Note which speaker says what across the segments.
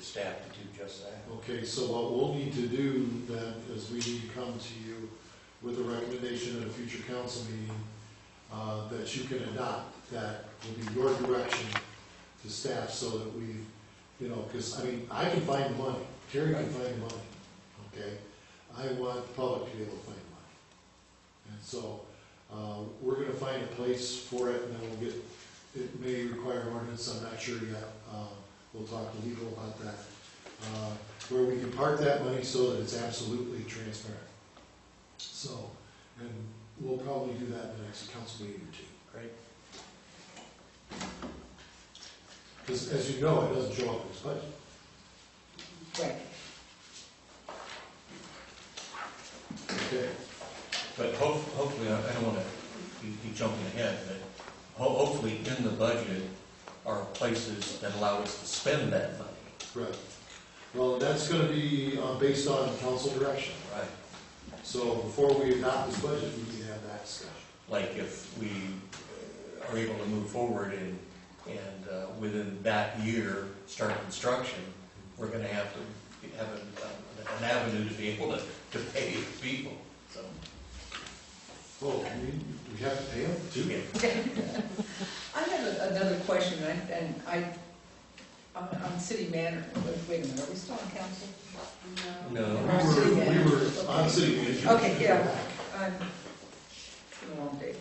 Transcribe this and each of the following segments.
Speaker 1: staff to do just that.
Speaker 2: Okay, so what we'll need to do then is we need to come to you with a recommendation at a future council meeting uh, that you can adopt, that will be your direction to staff so that we, you know, because, I mean, I can find the money, Terry can find the money, okay? I want the public to be able to find the money. And so, uh, we're gonna find a place for it, and then we'll get, it may require an ordinance, I'm not sure yet. Uh, We'll talk to legal about that. Uh, Where we can park that money so that it's absolutely transparent. So, and we'll probably do that in the next council meeting or two.
Speaker 1: Great.
Speaker 2: Because as you know, it doesn't show up in this budget.
Speaker 3: Right.
Speaker 2: Okay,
Speaker 1: But ho- hopefully, I I don't want to be jumping ahead, but ho- hopefully in the budget are places that allow us to spend that money.
Speaker 2: right. Well, that's gonna be uh, based on council direction.
Speaker 1: Right.
Speaker 2: So before we adopt this budget, we need to have that discussion.
Speaker 1: Like if we uh, are able to move forward and, and uh, within that year, start construction, we're going to have to have an- an avenue to be able to, to pay people, so.
Speaker 2: Oh, we, we have to pay them?
Speaker 1: do get
Speaker 3: I have a- another question, and I- and I, I'm I'm city manager, wait- wait a minute, are we still on council?
Speaker 1: No.
Speaker 2: We
Speaker 3: Our city
Speaker 2: were, we
Speaker 3: manager.
Speaker 2: were on city manager.
Speaker 3: Okay, yeah. I'm- It's been a long day.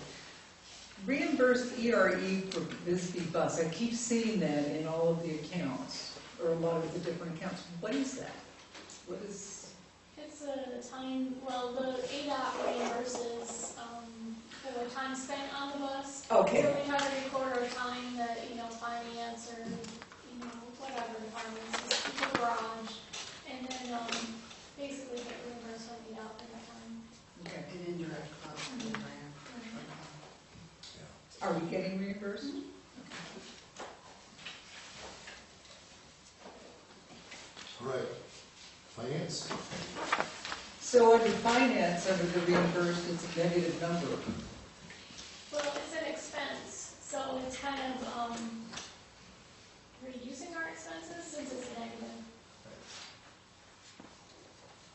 Speaker 3: Reimbursed ERE for Bisbee Bus, I keep seeing that in all of the accounts, or a lot of the different accounts. What is that? What is,
Speaker 4: It's a time, well, the ADOT reimburses, um, the time spent on the bus. So
Speaker 3: okay,
Speaker 4: we try to record our time that, you know, finance or, you know, whatever departments, just keep the garage. And then, um, basically get reimbursed on the out for the time.
Speaker 3: okay.
Speaker 5: An indirect cost of the grant.
Speaker 3: Are we getting reimbursed?
Speaker 2: Right. Finance?
Speaker 3: So under finance, under the reimbursed, it's a negative number.
Speaker 4: Well, it's an expense, so it's kind of, um, reducing our expenses since it's negative.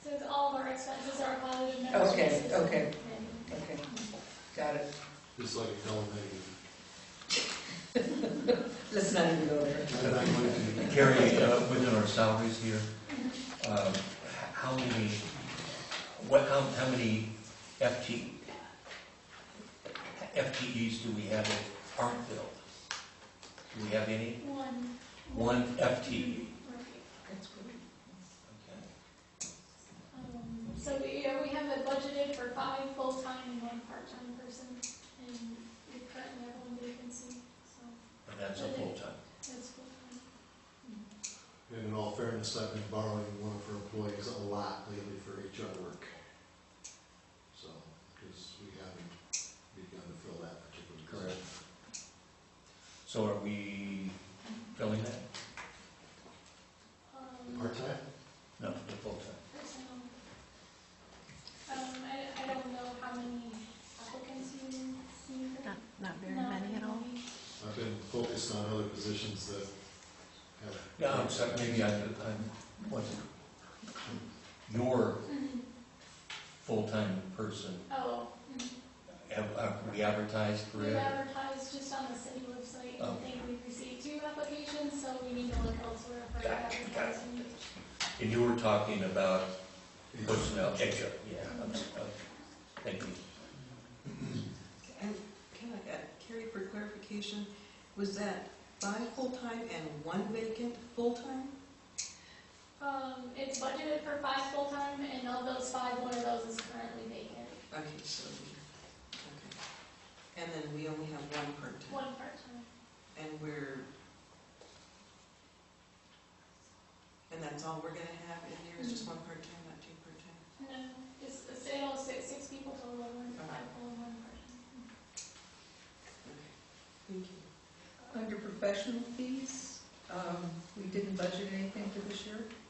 Speaker 4: Since all of our expenses are positive numbers.
Speaker 3: Okay,
Speaker 4: it's
Speaker 3: okay.
Speaker 4: negative.
Speaker 3: Okay, got it.
Speaker 2: It's like a double negative.
Speaker 3: Let's not even go there.
Speaker 2: I'm not going to-
Speaker 1: Carrie, uh, within our salaries here, um, h- how many, what, how, how many FT, FTEs do we have that aren't filled? Do we have any?
Speaker 4: One.
Speaker 1: One E. FTE.
Speaker 4: Right.
Speaker 3: That's good.
Speaker 4: Um, So we, yeah, we have it budgeted for five full-time and one part-time person, and we currently have one vacancy, so
Speaker 1: And that's a full-time.
Speaker 4: that's full-time.
Speaker 2: And in all fairness, I've been borrowing one of her employees a lot lately for HR work. So, because we haven't begun to fill that particular. position.
Speaker 1: So are we filling that?
Speaker 4: Um,
Speaker 2: Part-time?
Speaker 1: No, the full-time.
Speaker 4: personnel. Um, I, I don't know how many applicants you see.
Speaker 6: Not, not very many at all.
Speaker 2: I've been focused on other positions that have.
Speaker 1: Yeah, I'm sorry, maybe I, I'm, what, your full-time person,
Speaker 4: Oh, mm.
Speaker 1: have, uh, we advertised for
Speaker 4: we've
Speaker 1: it?
Speaker 4: advertised just on the city website,
Speaker 1: Oh.
Speaker 4: I think we've received two applications, so we need to look elsewhere for
Speaker 1: Got it, got it.
Speaker 4: advertising.
Speaker 1: And you were talking about
Speaker 2: Yeah.
Speaker 1: personnel. Yeah, sure, yeah, I'm s- uh, thank you.
Speaker 5: And can I, uh, Carrie, for clarification, was that five full-time and one vacant full-time?
Speaker 4: Um, it's budgeted for five full-time, and of those five, one of those is currently vacant,
Speaker 5: Okay, so, okay. And then we only have one part-time,
Speaker 4: one part-time.
Speaker 5: and we're, and that's all we're gonna have in here, is just one part-time, not two part-time?
Speaker 4: No, it's, it's, it'll say six people total, one five full, and one part-time.
Speaker 5: Okay, Thank you.
Speaker 3: Under professional fees, um, we didn't budget anything for this year?
Speaker 4: um,